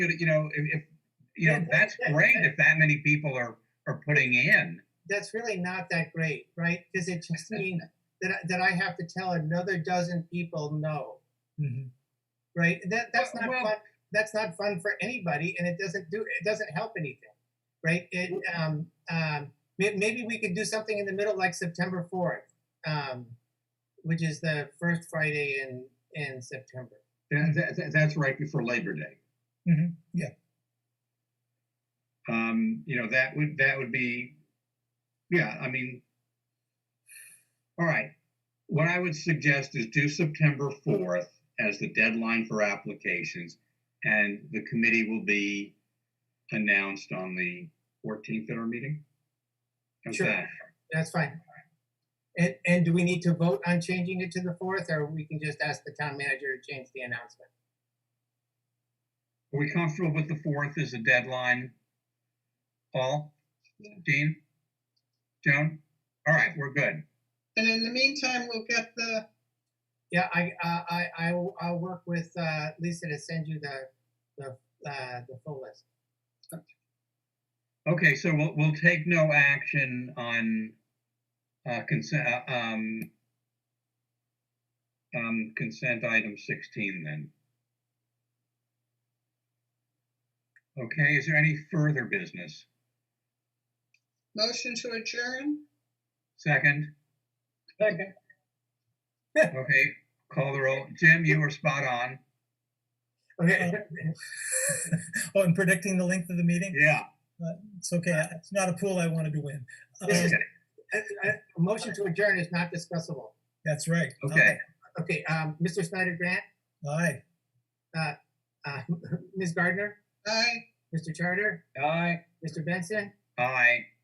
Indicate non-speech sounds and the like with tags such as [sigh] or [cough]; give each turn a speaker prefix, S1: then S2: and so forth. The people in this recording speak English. S1: good, you know, if, if you know,
S2: Yeah,
S1: that's
S2: yeah,
S1: great
S2: yeah.
S1: if that many people are are putting in.
S2: that's really not that great, right? Because it just
S1: [laughs]
S2: means that I- that I have to tell another dozen people no, right? That that's not
S1: Well-
S2: fun. That's not fun for anybody, and it doesn't do it doesn't help anything, right? It um um may- maybe we could do something in the middle like September fourth, um, which is the first Friday in in September.
S1: That, that- that- that's right before Labor Day.
S3: Mhm, yeah.
S1: Um, you know, that would, that would be, yeah, I mean, all right. What I would suggest is do September 4th as the deadline for applications, and the committee will be announced on the 14th at our meeting. How's
S2: Sure.
S1: that?
S2: That's fine. And and do we need to vote on changing it to the fourth, or we can just ask the town manager to change the announcement?
S1: Are we comfortable with the 4th as a deadline? Paul? Dean? Joan? All right, we're good.
S4: And in the meantime, we'll get the,
S2: Yeah, I, I, I, I will- I'll work with uh, Lisa to send you the, the, uh, the full list.
S1: Okay, so we'll, we'll take no action on, uh, consent, uh, um, um, consent item sixteen then. Okay, is there any further business?
S4: motion to adjourn.
S1: Second?
S2: Second.
S1: Okay, call the roll. Jim, you were spot on.
S2: Okay, [laughs] uh,
S3: Oh, and predicting the length of the meeting?
S1: Yeah.
S3: It's okay. It's not a pool I wanted to win.
S2: This is-
S3: Um,
S2: I- I- uh, a motion to adjourn is not discussable.
S3: That's right.
S1: Okay,
S2: Okay, um, Mr. Snyder Grant,
S3: Aye.
S2: uh, [laughs] Ms. Gardner,
S4: Aye.
S2: Mr. Charter,
S1: aye.
S2: Mr. Benson,
S1: Aye.